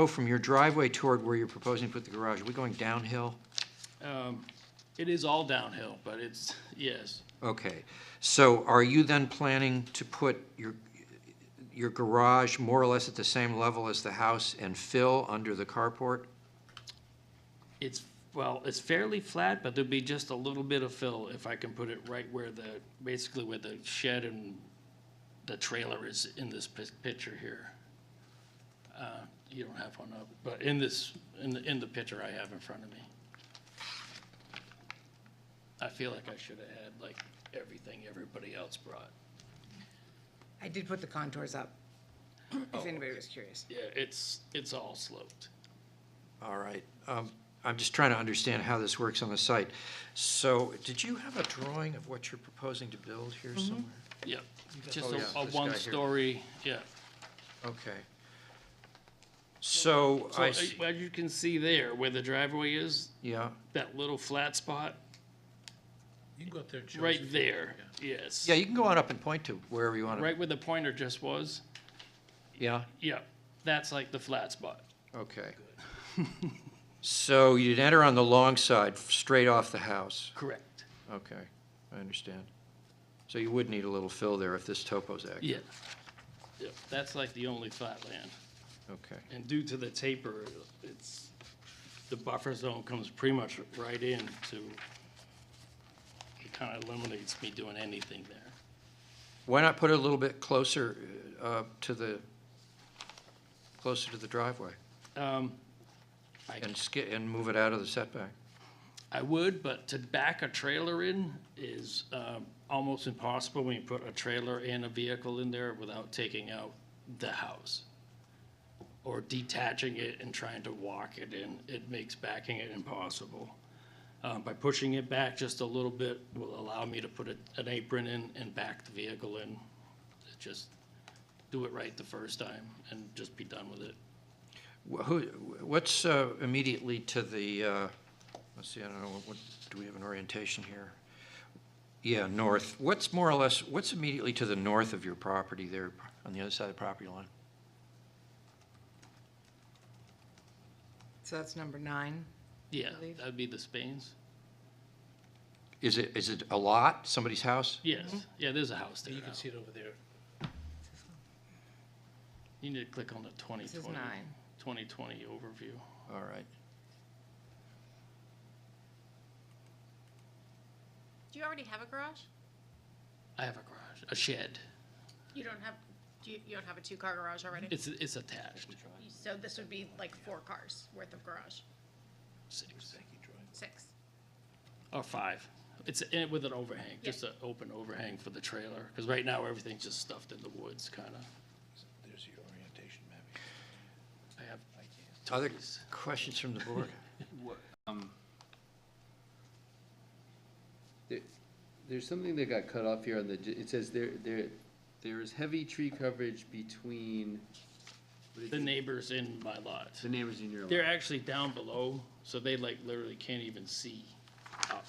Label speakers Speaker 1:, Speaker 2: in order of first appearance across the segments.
Speaker 1: go from your driveway toward where you're proposing to put the garage, are we going downhill?
Speaker 2: Um, It is all downhill, but it's, yes,
Speaker 1: Okay, so are you then planning to put your, your garage more or less at the same level as the house and fill under the carport?
Speaker 2: it's, well, it's fairly flat, but there'll be just a little bit of fill if I can put it right where the, basically where the shed and the trailer is in this pic- picture here. Uh, You don't have one up, but in this, in the, in the picture I have in front of me. I feel like I should have had like everything everybody else brought.
Speaker 3: I did put the contours up, if anybody was curious.
Speaker 2: Yeah, it's, it's all sloped.
Speaker 1: All right, um, I'm just trying to understand how this works on the site. So, did you have a drawing of what you're proposing to build here
Speaker 2: Mm-hmm.
Speaker 1: somewhere?
Speaker 2: Yep,
Speaker 1: got-
Speaker 2: just
Speaker 1: Oh, yeah,
Speaker 2: a- a
Speaker 1: this guy here.
Speaker 2: one-story, yeah.
Speaker 1: Okay. So,
Speaker 2: So,
Speaker 1: I,
Speaker 2: uh,
Speaker 1: s-
Speaker 2: as you can see there, where the driveway is,
Speaker 1: yeah,
Speaker 2: that little flat spot,
Speaker 4: You can go up there and show us
Speaker 2: right
Speaker 4: if you-
Speaker 2: there, yes.
Speaker 1: yeah, you can go on up and point to wherever you want to.
Speaker 2: Right where the pointer just was,
Speaker 1: Yeah,
Speaker 2: yeah, that's like the flat spot.
Speaker 1: okay. So you'd enter on the long side, straight off the house?
Speaker 2: Correct.
Speaker 1: Okay, I understand. So you would need a little fill there if this topo's accurate?
Speaker 2: Yeah. Yep, that's like the only flat land.
Speaker 1: Okay,
Speaker 2: And due to the taper, it's, the buffer zone comes pretty much right in to, it kind of eliminates me doing anything there.
Speaker 1: why not put it a little bit closer uh, to the, closer to the driveway?
Speaker 2: Um, I
Speaker 1: And ski, and move it out of the setback?
Speaker 2: I would, but to back a trailer in is um, almost impossible when you put a trailer and a vehicle in there without taking out the house. Or detaching it and trying to walk it in, it makes backing it impossible. Uh, By pushing it back just a little bit will allow me to put a- an apron in and back the vehicle in. Just do it right the first time and just be done with it.
Speaker 1: Wh- Who, what's uh, immediately to the, uh, let's see, I don't know, what, do we have an orientation here? Yeah, north. What's more or less, what's immediately to the north of your property there, on the other side of the property line?
Speaker 3: So that's number nine.
Speaker 2: Yeah,
Speaker 3: Believe-
Speaker 2: that'd be the Spains.
Speaker 1: Is it, is it a lot, somebody's house?
Speaker 2: Yes, yeah, there's a house there
Speaker 4: Mm-hmm. You
Speaker 2: now.
Speaker 4: can see it over there.
Speaker 2: You need to click on the 2020.
Speaker 3: This is nine.
Speaker 2: 2020 overview.
Speaker 1: All right.
Speaker 5: Do you already have a garage?
Speaker 2: I have a garage, a shed.
Speaker 5: You don't have, do you, you don't have a two-car garage already?
Speaker 2: It's, it's attached.
Speaker 5: So this would be like four cars worth of garage,
Speaker 2: Six
Speaker 5: six.
Speaker 2: or five. It's in- with an overhang, just an open overhang for the trailer. Because right now, everything's just stuffed in the woods, kind of.
Speaker 4: There's your orientation map.
Speaker 2: I have
Speaker 1: Other
Speaker 2: Tony's.
Speaker 1: questions from the board?
Speaker 6: There- There's something that got cut off here on the, j- it says there, there, there is heavy tree coverage between. what did
Speaker 2: The
Speaker 6: you-
Speaker 2: neighbors in my lot.
Speaker 6: The neighbors in your
Speaker 2: They're
Speaker 6: lot.
Speaker 2: actually down below, so they like literally can't even see up.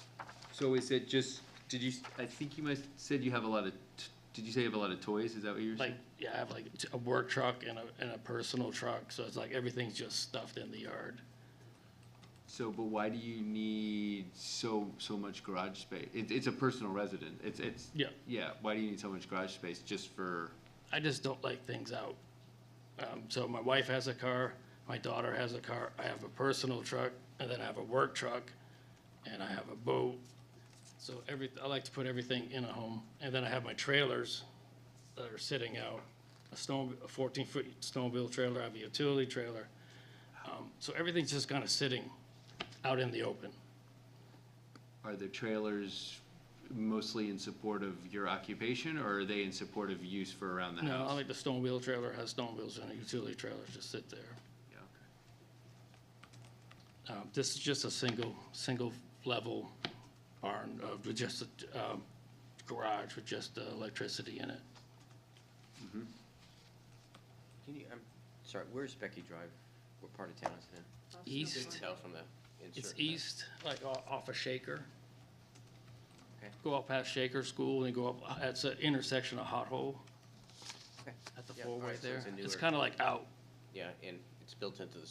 Speaker 6: So is it just, did you, s- I think you must, said you have a lot of, t- did you say you have a lot of toys? Is that what you were
Speaker 2: Like,
Speaker 6: saying?
Speaker 2: yeah, I have like t- a work truck and a, and a personal truck, so it's like everything's just stuffed in the yard.
Speaker 6: So, but why do you need so, so much garage space? It, it's a personal resident. It's, it's.
Speaker 2: Yeah.
Speaker 6: Yeah, why do you need so much garage space just for,
Speaker 2: I just don't like things out. Um, so my wife has a car, my daughter has a car, I have a personal truck, and then I have a work truck, and I have a boat. So every, I like to put everything in a home, and then I have my trailers that are sitting out. A snow, a fourteen-foot snowmobile trailer, I have a utility trailer. Um, so everything's just kind of sitting out in the open.
Speaker 6: are the trailers mostly in support of your occupation or are they in support of use for around the
Speaker 2: No,
Speaker 6: house?
Speaker 2: I like the snowmobile trailer has snowmobiles and a utility trailer just sit there.
Speaker 6: Yeah, okay.
Speaker 2: Um, This is just a single, single level barn, uh, with just a um, garage with just uh, electricity in it.
Speaker 7: Can you, I'm sorry, where's Becky Drive? What part of town is it in?
Speaker 2: East,
Speaker 7: Tell from the
Speaker 2: it's
Speaker 7: insert.
Speaker 2: east, like o- off of Shaker.
Speaker 7: Okay.
Speaker 2: Go up past Shaker School and go up, uh, it's an intersection of Hot Hole
Speaker 7: Okay.
Speaker 2: at the
Speaker 7: Yeah,
Speaker 2: four
Speaker 7: all
Speaker 2: way
Speaker 7: right, so
Speaker 2: there.
Speaker 7: it's a
Speaker 2: It's
Speaker 7: newer-
Speaker 2: kind of like out,
Speaker 7: Yeah, and it's It's built into the